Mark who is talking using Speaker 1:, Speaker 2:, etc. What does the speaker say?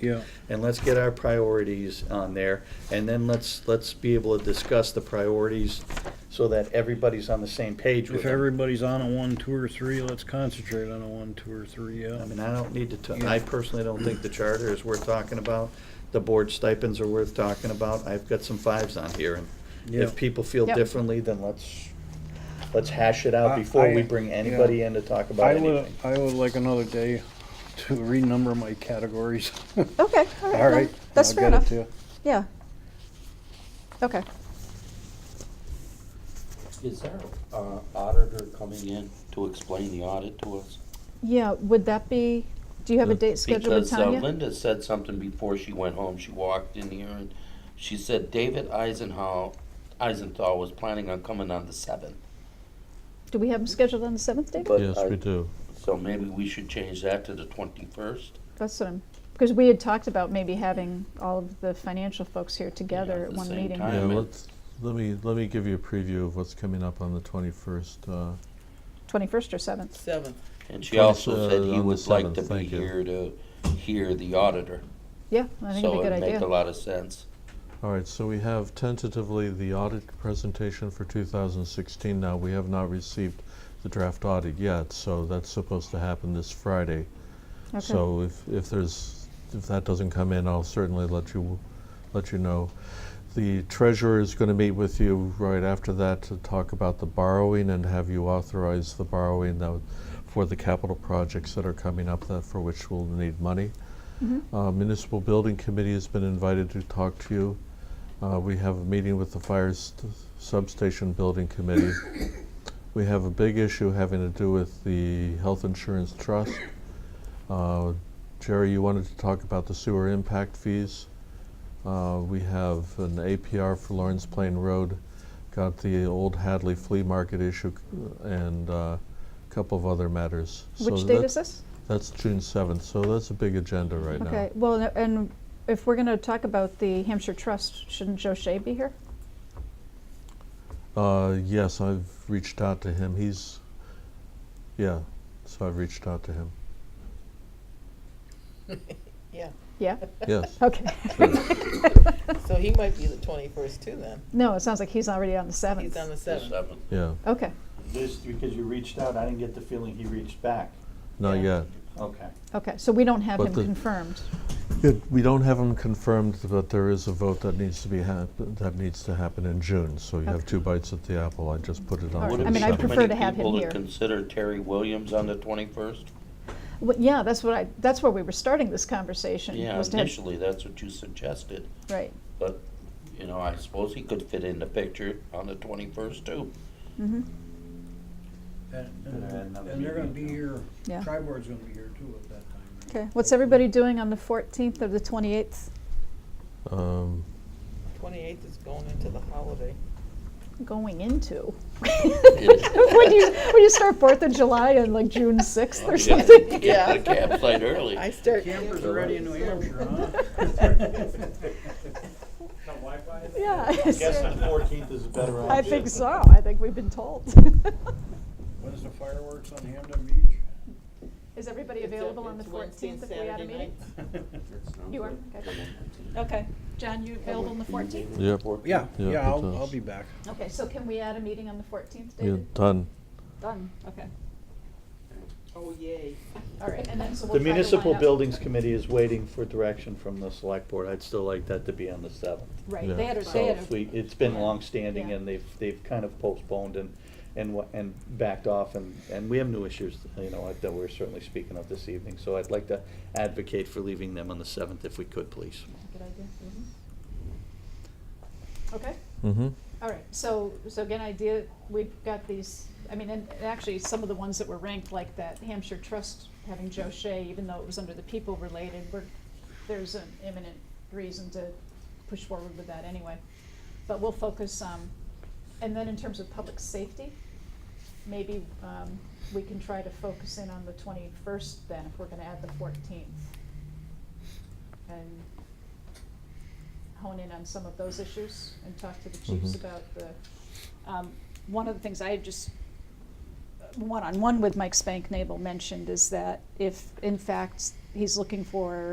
Speaker 1: Yeah.
Speaker 2: And let's get our priorities on there, and then let's, let's be able to discuss the priorities so that everybody's on the same page with
Speaker 1: If
Speaker 2: them.
Speaker 1: everybody's on a one, two, or three, let's concentrate on a one, two, or three, yeah.
Speaker 2: I mean, I don't need to, ta- I personally don't think the charter is worth talking about. The board stipends are worth talking about. I've got some fives on here, and
Speaker 1: Yeah.
Speaker 2: if people feel
Speaker 3: Yep.
Speaker 2: differently, then let's, let's hash it
Speaker 1: I-
Speaker 2: out before we
Speaker 1: I-
Speaker 2: bring
Speaker 1: yeah.
Speaker 2: anybody in to talk about
Speaker 1: I would,
Speaker 2: anything.
Speaker 1: I would like another day to renumber my categories.
Speaker 3: Okay, all right.
Speaker 1: All right.
Speaker 3: no, That's
Speaker 1: I'll
Speaker 3: fair
Speaker 1: get it
Speaker 3: enough.
Speaker 1: to you.
Speaker 3: Yeah. Okay.
Speaker 4: Is there an auditor coming in to explain the audit to us?
Speaker 3: Yeah, would that be, do you have a date scheduled with
Speaker 4: Because uh,
Speaker 3: Tanya?
Speaker 4: Linda said something before she went home, she walked in here and she said David Eisenhow, Eisenthal was planning on coming on the seventh.
Speaker 3: Do we have them scheduled on the seventh date?
Speaker 4: But
Speaker 5: Yes,
Speaker 4: I-
Speaker 5: we do.
Speaker 4: So maybe we should change that to the twenty-first.
Speaker 3: That's what I'm, because we had talked about maybe having all of the financial folks here together
Speaker 4: at
Speaker 3: at
Speaker 4: the
Speaker 3: one
Speaker 4: same
Speaker 3: meeting.
Speaker 4: time.
Speaker 5: Yeah,
Speaker 4: mean-
Speaker 5: let's, let me, let me give you a preview of what's coming up on the twenty-first, uh,
Speaker 3: Twenty-first or seventh?
Speaker 6: Seventh.
Speaker 4: And she also
Speaker 5: Twenty-
Speaker 4: said
Speaker 5: uh, on
Speaker 4: he
Speaker 5: the
Speaker 4: would like
Speaker 5: 7th,
Speaker 4: to be
Speaker 5: thank you.
Speaker 4: here to hear the auditor.
Speaker 3: Yeah, I think it'd be a good
Speaker 4: So it'd make a
Speaker 3: idea.
Speaker 4: lot of sense.
Speaker 5: All right, so we have tentatively the audit presentation for 2016 now. We have not received the draft audit yet, so that's supposed to happen this Friday.
Speaker 3: Okay.
Speaker 5: So if, if there's, if that doesn't come in, I'll certainly let you, let you know. The treasurer is going to meet with you right after that to talk about the borrowing and have you authorize the borrowing that, for the capital projects that are coming up that, for which we'll need money. Uh, Municipal Building Committee has been invited to talk to you. Uh, we have a meeting with the Fire st- Substation Building Committee. We have a big issue having to do with the Health Insurance Trust. Uh, Jerry, you wanted to talk about the sewer impact fees. Uh, We have an APR for Lawrence Plain Road, got the old Hadley Flea Market issue, c- and a couple of other matters. So
Speaker 3: Which date
Speaker 5: that-
Speaker 3: is this?
Speaker 5: That's June seventh, so that's a big agenda right now.
Speaker 3: Okay, well, no- and if we're gonna talk about the Hampshire Trust, shouldn't Joe Shea be here?
Speaker 5: Uh, yes, I've reached out to him. He's, yeah, so I've reached out to him.
Speaker 6: Yeah,
Speaker 3: Yeah?
Speaker 5: Yes.
Speaker 3: Okay.
Speaker 6: so he might be the twenty-first too then.
Speaker 3: No, it sounds like he's already on the seventh.
Speaker 6: He's on the
Speaker 4: The
Speaker 6: seventh.
Speaker 4: 7th.
Speaker 5: Yeah,
Speaker 3: Okay,
Speaker 2: Just because you reached out, I didn't get the feeling he reached back.
Speaker 5: not
Speaker 6: Yeah.
Speaker 5: yet.
Speaker 2: Okay.
Speaker 3: okay, so we don't have
Speaker 5: But
Speaker 3: him
Speaker 5: the-
Speaker 3: confirmed.
Speaker 5: It- we don't have him confirmed, but there is a vote that needs to be hap- that needs to happen in June. So you
Speaker 3: Okay.
Speaker 5: have two bites at the apple. I just put it on.
Speaker 3: All
Speaker 5: for
Speaker 3: right.
Speaker 5: the
Speaker 3: I mean, I'd
Speaker 5: seventh.
Speaker 3: prefer to have him
Speaker 4: Would it be too many people
Speaker 3: here.
Speaker 4: to consider Terry Williams on the twenty-first?
Speaker 3: Well, yeah, that's what I, that's where we were starting this conversation.
Speaker 4: Yeah,
Speaker 3: was to have-
Speaker 4: initially, that's what you suggested,
Speaker 3: Right,
Speaker 4: but, you know, I suppose he could fit in the picture on the twenty-first too.
Speaker 3: mm-hmm,
Speaker 7: And,
Speaker 2: Better add
Speaker 7: and
Speaker 2: another
Speaker 7: and they're gonna
Speaker 2: meeting.
Speaker 7: be here,
Speaker 3: yeah.
Speaker 7: tri-board's gonna be here too at that time, right?
Speaker 3: Okay, what's everybody doing on the fourteenth or the twenty-eighth?
Speaker 5: Um,
Speaker 6: Twenty-eighth is going into the holiday.
Speaker 3: Going into? When you, when you start Fourth of July on like June sixth or
Speaker 4: You
Speaker 3: something?
Speaker 4: gotta Get to the campsite early.
Speaker 6: I start.
Speaker 7: Campers are ready in New Hampshire, huh?
Speaker 3: Yeah. I
Speaker 2: Guess
Speaker 3: see.
Speaker 2: the fourteenth is a better option.
Speaker 3: I think so, I think we've been told.
Speaker 7: When's the fireworks on Hampton Beach?
Speaker 3: Is everybody available on the fourteenth if we had a meeting? You are, okay. Okay, John, you available on the fourteenth?
Speaker 5: yep.
Speaker 7: Yeah,
Speaker 5: Yeah,
Speaker 7: yeah,
Speaker 5: it
Speaker 7: I'll, I'll
Speaker 5: does.
Speaker 7: be back.
Speaker 3: Okay, so can we add a meeting on the fourteenth,
Speaker 5: Yeah,
Speaker 3: David?
Speaker 5: done.
Speaker 3: Done, okay,
Speaker 6: Oh, yay.
Speaker 3: all right, and then so we'll
Speaker 2: The
Speaker 3: try to line
Speaker 2: municipal
Speaker 3: up-
Speaker 2: buildings committee is waiting for direction from the select board. I'd still like that to be on the seventh.
Speaker 3: Right,
Speaker 5: Yeah.
Speaker 3: they had, a-
Speaker 2: So
Speaker 3: they had a
Speaker 2: if we, it's been longstanding
Speaker 3: Yeah.
Speaker 2: and they've, they've kind of postponed and, and, wa- and backed off and, and we have new issues, you know, that we're certainly speaking of this evening. So I'd like to advocate for leaving them on the seventh if we could, please.
Speaker 3: Good idea. mm-hmm. Okay,
Speaker 5: Mm-hmm.
Speaker 3: all right, so, so again, idea, we've got these, I mean, and and actually, some of the ones that were ranked, like that Hampshire Trust having Joe Shea, even though it was under the people related, we're, there's an imminent reason to push forward with that anyway. But we'll focus, um, and then in terms of public safety, maybe, um, we can try to focus in on the twenty-first then, if we're gonna add the fourteenth. And hone in on some of those issues and talk to the chiefs
Speaker 5: Mhm.
Speaker 3: about the, um, one of the things I had just, uh, one-on-one with Mike Spank Nabel mentioned is that if, in fact, he's looking for